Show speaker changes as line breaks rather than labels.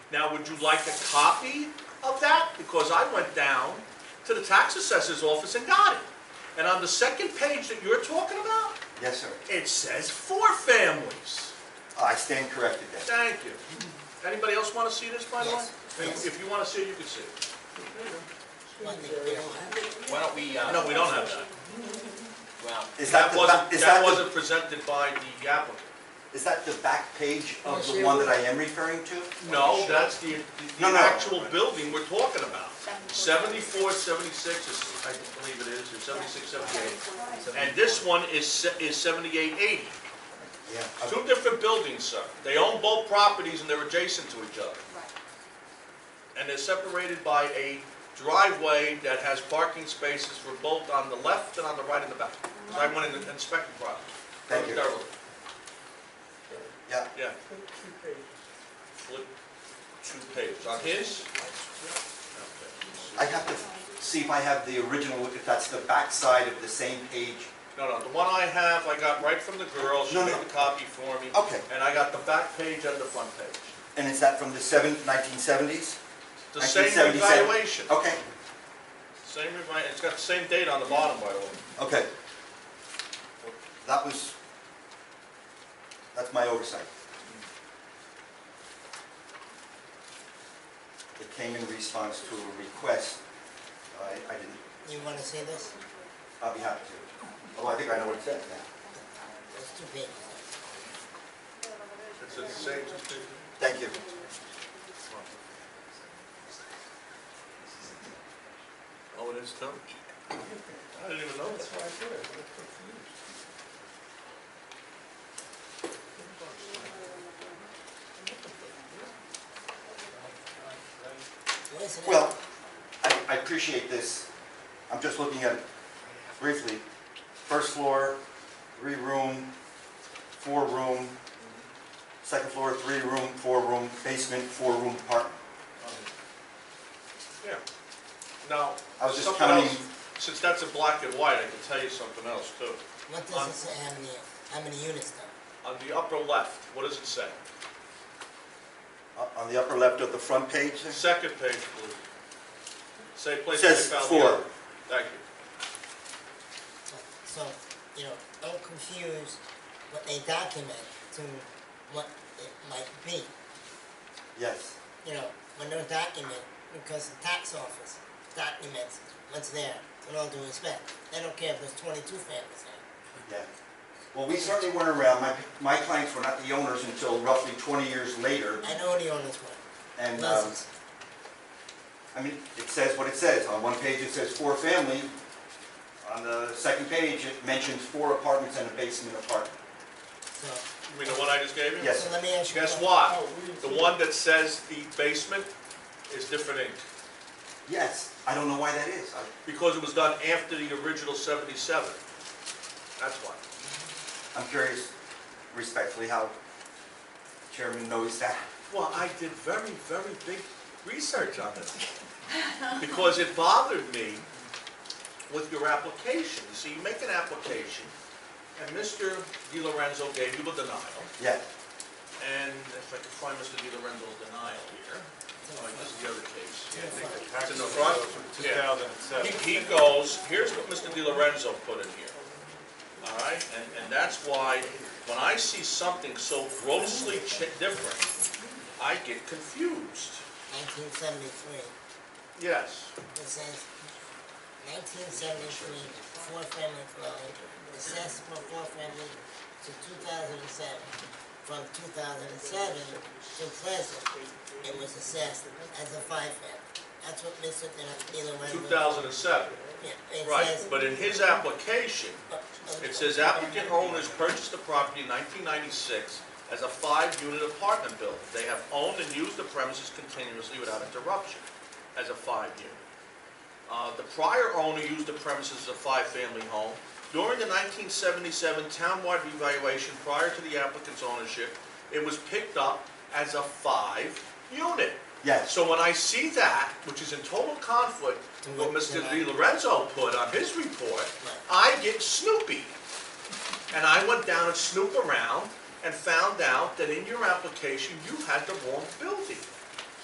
Now, would you like a copy of that? Because I went down to the tax assessor's office and got it. And on the second page that you're talking about,
Yes, sir. Uh,
it says four families.
I stand corrected then.
Thank you. Anybody else want to see this, by the way?
Yes,
If
yes.
if you want to see it, you can see it.
Well, they- they don't have it.
Why don't we, uh,
No, we don't have that.
well,
Is that
That
the, ba-
wasn't,
is
that
that the,
wasn't presented by the applicant.
is that the back page of
Yes,
the
it
one that I am referring to?
No, that's the, the
No, no.
actual building we're talking about. 74, 76 is, I believe it is, or 76, 78. And this one is, se- is 78, 80.
Yeah.
Two different buildings, sir. They own both properties and they're adjacent to each other. And they're separated by a driveway that has parking spaces for both on the left and on the right and the back. 'Cause I went in and inspected the property.
Thank you.
Thoroughly,
Yeah,
Yeah. Flip two pages. On his?
I have to see if I have the original, if that's the back side of the same page.
No, no, the one I have, I got right from the girl, she
No,
made
no.
the copy for me.
Okay.
And I got the back page and the front page.
And is that from the seventh, nineteen seventies?
The same
1977.
evaluation,
Okay,
same revi, it's got the same date on the bottom, by the way.
okay. That was, that's my oversight. It came in response to a request. I, I didn't
You want to see this?
I'll be happy to. Oh, I think I know what it says now.
It's too big.
It's the same,
Thank you.
oh, it is too? I didn't even know that.
Listen,
Well, I, I appreciate this. I'm just looking at it briefly. First floor, three room, four room. Second floor, three room, four room, basement, four room apartment.
Yeah. Now,
I was just
something else,
counting-
since that's a black and white, I can tell you something else too.
what does it say, how many, how many units though?
On the upper left, what does it say?
Uh, On the upper left of the front page, there?
Second page, please. Say place.
Says
they found the
four.
other. Thank you.
So, you know, don't confuse what they document to what it might be.
yes.
you know, when they're document, because the tax office documents what's there, with all due respect. They don't care if there's twenty-two families there.
Yeah. Well, we certainly weren't around. My, my clients were not the owners until roughly 20 years later.
I know the owners were,
And, um,
lessons.
I mean, it says what it says. On one page, it says four family. On the second page, it mentions four apartments and a basement apartment.
So,
You mean the one I just gave you?
Yes.
so let me ask you.
Guess
a
what? The one that says the basement is different ink,
Yes, I don't know why that is. I-
because it was done after the original seventy-seven. That's why.
I'm curious respectfully how chairman knows that.
Well, I did very, very big research on this, because it bothered me with your application. You see, you make an application, and Mr. Di Lorenzo gave you a denial,
Yeah,
and if I could find Mr. Di Lorenzo's denial here, oh, this is the other case.
It's in the
It's in the front? Yeah.
2007.
He, he goes, here's what Mr. Di Lorenzo put in here. All right, and, and that's why, when I see something so grossly chi- different, I get confused.
Nineteen seventy-three,
Yes.
it says, nineteen seventy-three, four-family dwelling, assessed from four-family to two thousand and seven. From two thousand and seven to present, it was assessed as a five-family. That's what Mr. Taylor went
Two
with.
thousand and seven,
Yeah, it
right,
says- Uh,
but in his application,
but-
it says applicant owners purchased the property in nineteen ninety-six as a five-unit apartment building. They have owned and used the premises continuously without interruption as a five-unit. Uh, The prior owner used the premises as a five-family home. During the 1977 townwide revaluation prior to the applicant's ownership, it was picked up as a five-unit.
yes.
So when I see that, which is in total conflict with what Mr. Di Lorenzo put on his report, I get snoopy. And I went down and snooped around and found out that in your application, you had the wrong building.